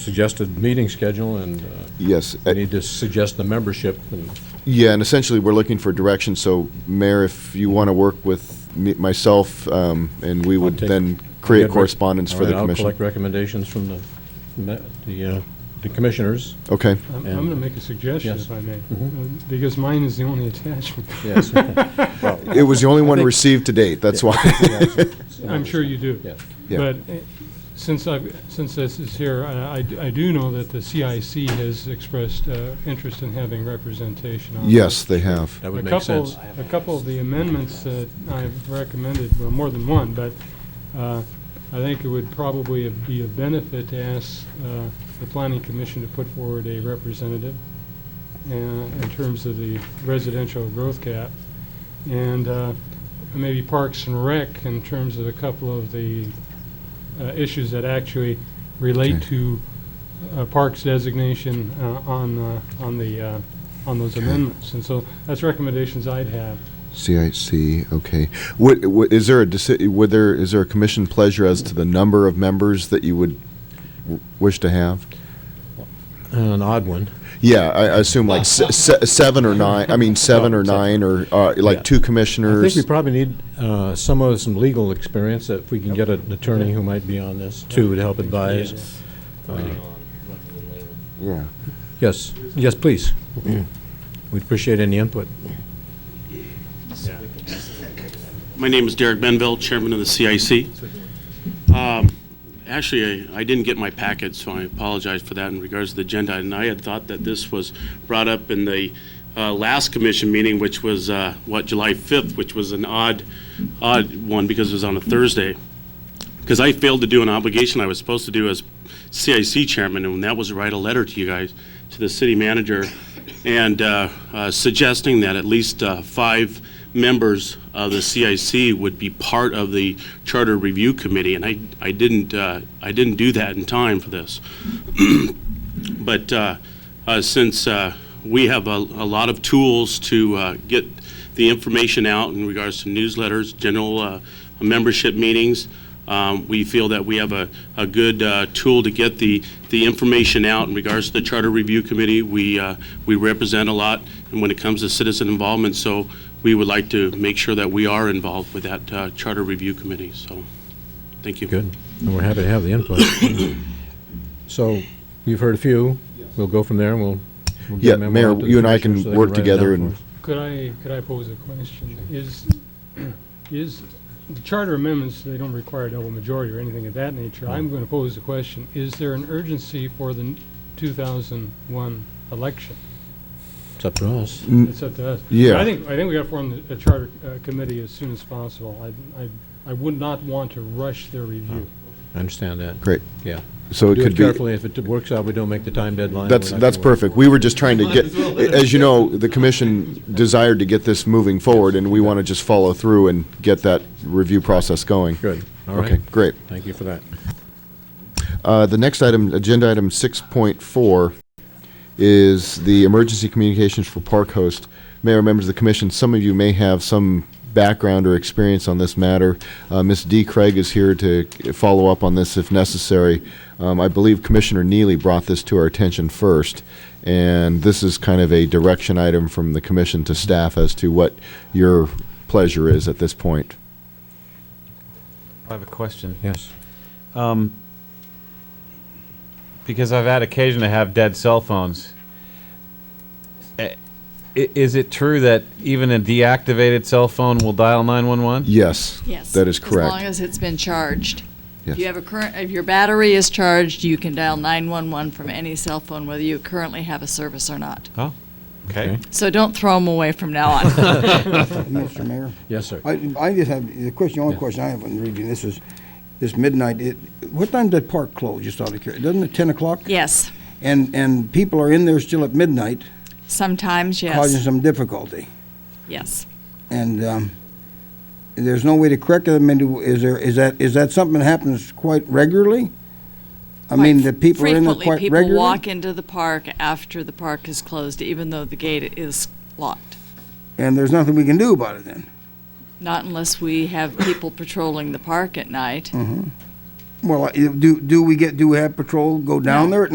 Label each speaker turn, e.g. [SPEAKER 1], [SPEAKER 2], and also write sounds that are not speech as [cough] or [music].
[SPEAKER 1] suggested meeting schedule, and uh,
[SPEAKER 2] Yes,
[SPEAKER 1] we
[SPEAKER 2] uh,
[SPEAKER 1] need to suggest the membership, and
[SPEAKER 2] yeah, and essentially, we're looking for direction, so Mayor, if you want to work with me- myself, um, and we would
[SPEAKER 1] take-
[SPEAKER 2] then create
[SPEAKER 1] I'll get rec-
[SPEAKER 2] correspondence for
[SPEAKER 1] All
[SPEAKER 2] the
[SPEAKER 1] right, I'll collect
[SPEAKER 2] commission.
[SPEAKER 1] recommendations from the, me- the, uh, the commissioners.
[SPEAKER 2] Okay,
[SPEAKER 3] I'm
[SPEAKER 1] And-
[SPEAKER 3] going to make a suggestion,
[SPEAKER 1] Yes.
[SPEAKER 3] if I may,
[SPEAKER 1] Mhm.
[SPEAKER 3] uh, because mine is the only attachment.
[SPEAKER 2] [laughs]
[SPEAKER 1] Yes.
[SPEAKER 2] it was the only one
[SPEAKER 3] think-
[SPEAKER 2] received to date, that's why. [laughs]
[SPEAKER 3] I'm sure you do.
[SPEAKER 1] Yes.
[SPEAKER 2] Yeah.
[SPEAKER 3] But uh, since I've, since this is here, I, I d- I do know that the CIC has expressed uh, interest in having representation on.
[SPEAKER 2] Yes, they have.
[SPEAKER 1] That
[SPEAKER 3] A
[SPEAKER 1] would make
[SPEAKER 3] couple,
[SPEAKER 1] sense.
[SPEAKER 3] a couple of the amendments that I've recommended, well, more than one, but uh, I think it would probably be a benefit to ask uh, the planning commission to put forward a representative uh, in terms of the residential growth cap, and uh, maybe Parks and Rec in terms of a couple of the uh, issues that actually relate
[SPEAKER 2] Okay.
[SPEAKER 3] to uh, Parks designation uh, on, uh, on the, uh, on those
[SPEAKER 2] Okay.
[SPEAKER 3] amendments. And so that's recommendations I'd have.
[SPEAKER 2] CIC, okay. Would, would- is there a, deci- would there, is there a commission pleasure as to the number of members that you would w- wish to have?
[SPEAKER 1] An odd one.
[SPEAKER 2] Yeah, I I assume like se- se- seven or nine, I mean, seven or
[SPEAKER 1] No, seven.
[SPEAKER 2] nine, or uh,
[SPEAKER 1] Yeah.
[SPEAKER 2] like two
[SPEAKER 1] I think
[SPEAKER 2] commissioners.
[SPEAKER 1] we probably need uh, some of, some legal experience, if we can get an attorney who might be on this, too, to help advise. Uh,
[SPEAKER 2] Yeah.
[SPEAKER 1] Yes, yes, please. We'd appreciate any input.
[SPEAKER 4] My name is Derek Benville, Chairman of the CIC. Um, Actually, I I didn't get my packet, so I apologize for that in regards to the agenda. And I had thought that this was brought up in the uh, last commission meeting, which was, uh, what, July 5th, which was an odd, odd one because it was on a Thursday. Because I failed to do an obligation I was supposed to do as CIC chairman, and that was to write a letter to you guys, to the city manager, and uh, uh, suggesting that at least uh, five members of the CIC would be part of the Charter Review Committee, and I, I didn't, uh, I didn't do that in time for this. But uh, uh, since uh, we have a a lot of tools to uh, get the information out in regards to newsletters, general uh, membership meetings, um, we feel that we have a a good uh, tool to get the the information out in regards to the Charter Review Committee. We uh, we represent a lot and when it comes to citizen involvement, so we would like to make sure that we are involved with that uh, Charter Review Committee, so, thank you.
[SPEAKER 1] Good, and we're happy to have the input. [coughs] So, you've heard a few, we'll go from there, and we'll. we'll get
[SPEAKER 2] Yeah,
[SPEAKER 1] a memo
[SPEAKER 2] Mayor,
[SPEAKER 1] out to the
[SPEAKER 2] you and I
[SPEAKER 1] commissioners
[SPEAKER 2] can
[SPEAKER 1] so they
[SPEAKER 2] work
[SPEAKER 1] write it
[SPEAKER 2] together
[SPEAKER 1] down for
[SPEAKER 2] and-
[SPEAKER 1] us.
[SPEAKER 3] Could I, could I pose a question? Is, is, the charter amendments, they don't require double majority or anything of that nature. I'm going to pose the question, is there an urgency for the 2001 election?
[SPEAKER 1] It's up to us.
[SPEAKER 2] Mm.
[SPEAKER 3] It's up to us.
[SPEAKER 2] Yeah.
[SPEAKER 3] I think, I think we got to form a charter uh, committee as soon as possible. I, I, I would not want to rush their review.
[SPEAKER 1] I understand that.
[SPEAKER 2] Great.
[SPEAKER 1] Yeah.
[SPEAKER 2] So it
[SPEAKER 1] Do
[SPEAKER 2] could
[SPEAKER 1] it
[SPEAKER 2] be,
[SPEAKER 1] carefully. If it works out, we don't make the time deadline.
[SPEAKER 2] that's,
[SPEAKER 1] we're not
[SPEAKER 2] that's
[SPEAKER 1] gonna work.
[SPEAKER 2] perfect. We were just trying to get, as you know, the commission desired to get this moving forward, and we want to just follow through and get that review process going.
[SPEAKER 1] Good, all
[SPEAKER 2] Okay,
[SPEAKER 1] right.
[SPEAKER 2] great.
[SPEAKER 1] Thank you for that.
[SPEAKER 2] Uh, The next item, agenda item 6.4, is the emergency communications for Park Host. Mayor, members of the commission, some of you may have some background or experience on this matter. Uh, Ms. Dee Craig is here to follow up on this if necessary. Um, I believe Commissioner Neely brought this to our attention first, and this is kind of a direction item from the commission to staff as to what your pleasure is at this point.
[SPEAKER 5] I have a question.
[SPEAKER 1] Yes.
[SPEAKER 5] Because I've had occasion to have dead cell phones. Eh, i- Is it true that even a deactivated cell phone will dial 911?
[SPEAKER 2] Yes.
[SPEAKER 6] Yes.
[SPEAKER 2] That is correct.
[SPEAKER 6] As long as it's been charged.
[SPEAKER 2] Yes.
[SPEAKER 6] If you have a current, if your battery is charged, you can dial 911 from any cell phone, whether you currently have a service or not.
[SPEAKER 5] Oh, okay.
[SPEAKER 6] So don't throw them away from now on.
[SPEAKER 7] Mr. Mayor,
[SPEAKER 1] Yes, sir.
[SPEAKER 7] I, I just have, the question, the only question I have in reading this is, this midnight, it, what time did park close, just out of curiosity? Doesn't it ten o'clock?
[SPEAKER 6] Yes,
[SPEAKER 7] And, and people are in there still at midnight,
[SPEAKER 6] sometimes,
[SPEAKER 7] causing
[SPEAKER 6] yes,
[SPEAKER 7] some difficulty.
[SPEAKER 6] yes.
[SPEAKER 7] And, um, there's no way to correct it, I mean, do- is there, is that, is that something that happens quite regularly? I mean, the people are in there quite
[SPEAKER 6] Frequently, people
[SPEAKER 7] regularly?
[SPEAKER 6] walk into the park after the park is closed, even though the gate is locked.
[SPEAKER 7] And there's nothing we can do about it then?
[SPEAKER 6] Not unless we have people patrolling the park at night.
[SPEAKER 7] Well, I- do, do we get, do we have patrol go down there at